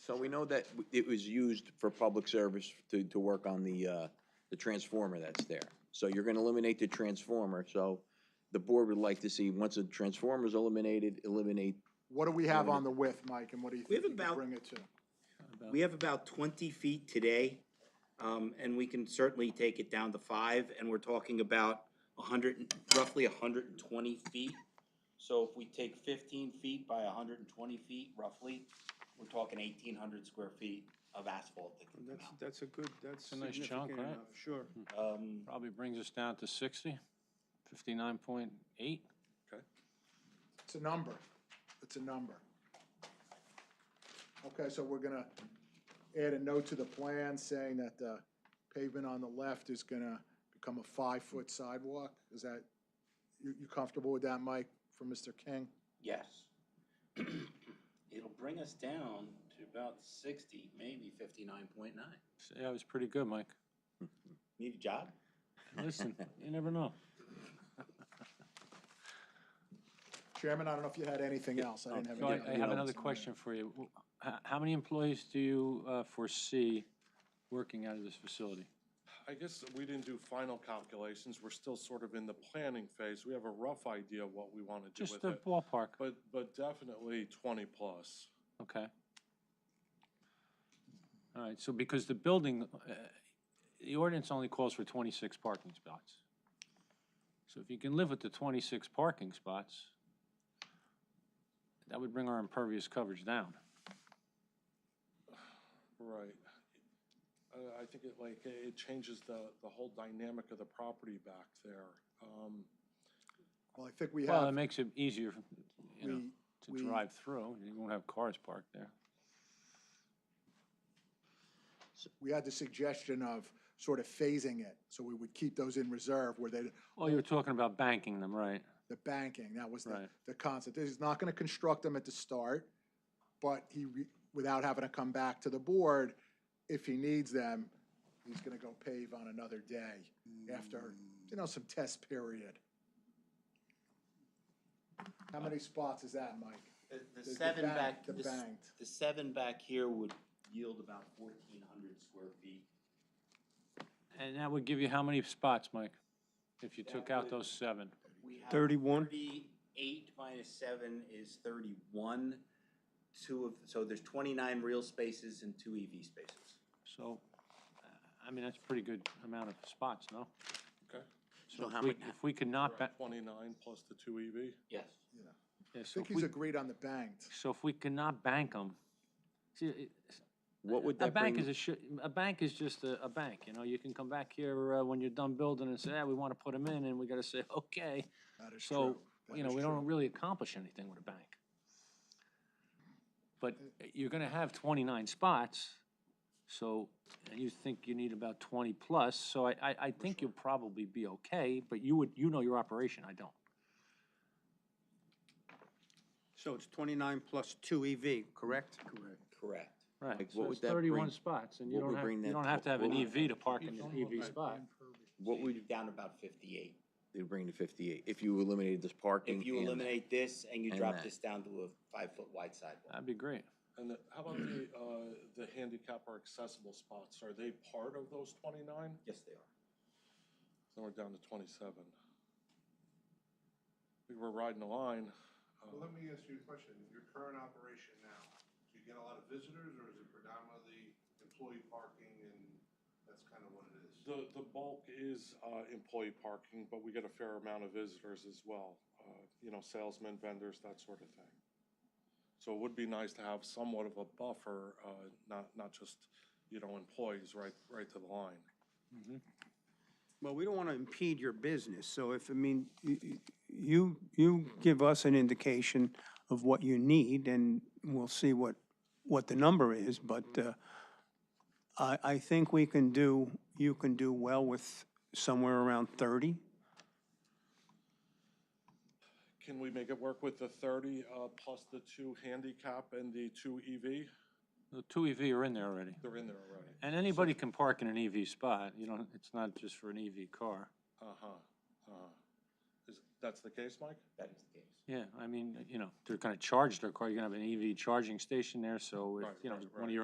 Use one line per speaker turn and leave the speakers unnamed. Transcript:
So we know that w- it was used for public service to, to work on the, uh, the transformer that's there. So you're gonna eliminate the transformer, so the board would like to see, once the transformer's eliminated, eliminate,
What do we have on the width, Mike, and what do you
We have
think you could
about-
bring it to?
We have about twenty feet today, um, and we can certainly take it down to five, and we're talking about a hundred, and- roughly hundred and twenty feet. So if we take fifteen feet by hundred and twenty feet roughly, we're talking eighteen hundred square feet of asphalt that can
That's,
come
that's a good, that's
A nice
significant
chunk,
enough,
right?
sure.
out. Um,
Probably brings us down to 60, 59.8.
It's a number. It's a number. Okay, so we're gonna add a note to the plan saying that the pavement on the left is gonna become a five-foot sidewalk. Is that, you, you comfortable with that, Mike, from Mr. King?
yes. It'll bring us down to about sixty, maybe fifty-nine point nine.
So, Yeah, it was pretty good, Mike.
Need a job?
Listen, you never know.
Chairman, I don't know if you had anything else. I didn't have
So I,
anything.
I have
else.
another question for you. W- h- How many employees do you uh, foresee working out of this facility?
Hmm. I guess we didn't do final calculations. We're still sort of in the planning phase. We have a rough idea of what we want to do
Just
with
a
it.
ballpark,
But, but definitely 20 plus.
okay? All right, so because the building, uh, the ordinance only calls for 26 parking spots. So if you can live with the 26 parking spots, that would bring our impervious coverage down.
Right. Uh, I think it like, it changes the, the whole dynamic of the property back there. Um,
Well, I think we
Well, it
have,
makes it easier, you know,
we, we-
to drive through, you won't have cars parked there.
we had the suggestion of sort of phasing it, so we would keep those in reserve where they,
Oh, you were talking about banking them, right?
the banking, that was the,
Right.
the concept. He's not gonna construct them at the start, but he, re- without having to come back to the board, if he needs them, he's gonna go pave on another day after,
Hmm.
you know, some test period. How many spots is that, Mike?
The,
The-
the
the
seven
bank-
back,
The
the s-
banked.
The seven back here would yield about fourteen hundred square feet.
And that would give you how many spots, Mike? If you took
That
out
would-
those seven?
We have
31?
Thirty-eight minus seven is thirty-one, two of, so there's twenty-nine real spaces and two EV spaces.
So, uh, I mean, that's a pretty good amount of spots, no?
Okay.
So
how
if we,
many-
if we could not, ba-
29 plus E the 2 EV.
Yes.
yeah,
I
so
think
if we,
he's agreed on the banked.
so if we cannot bank them, see, it-
what would
a
that bring?
bank is a, sh- a bank is just a, a bank, you know? You can come back here uh, when you're done building and say, ah, we want to put them in, and we got to say, okay.
That is
So,
true. That
you know,
is
we don't
true.
really accomplish anything with a bank. But uh, you're gonna have twenty-nine spots, so, and you think you need about twenty plus, so I, I, I think you'll probably be okay, but you would, you know your operation, I don't.
So it's 29 plus 2 EV, correct? Correct.
Correct.
Right,
Like, what
so
would
it's
that
thirty-one
bring-
spots, and you
what
don't
would
have,
bring that
you don't have to have an
total-
EV to park in an EV spot.
What
So
would
you're Down about fifty-eight.
it bring to fifty-eight if you eliminated this parking?
If you
and-
eliminate this and you
and
drop
that.
this down to a five-foot wide sidewalk.
That'd be great.
And the- how about the, uh, the handicap or accessible spots? Are they part of those 29?
Yes, they are.
Then we're down to 27. We were riding a line. uh,
Well, let me ask you a question. Your current operation now, do you get a lot of visitors or is it predominantly employee parking and that's kind of what it is?
The, the bulk is uh, employee parking, but we get a fair amount of visitors as well, uh, you know, salesmen, vendors, that sort of thing. So it would be nice to have somewhat of a buffer, uh, not, not just, you know, employees right, right to the line.
Well, we don't want to impede your business, so if, I mean, y- y- you, you give us an indication of what you need, and we'll see what, what the number is, but uh, I, I think we can do, you can do well with somewhere around 30.
Can we make it work with the 30 uh, plus the two handicap and the two EV?
The two EV are in there already.
They're in there already.
And anybody can park in an EV spot, you don't, it's not just for an EV car.
Uh-huh, uh-huh. Is, that's the case, Mike?
That is the case.
Yeah, I mean, you know, they're gonna charge their car, you're gonna have an EV E charging station there, so if,
Right,
you know,
right,
one of
right.
your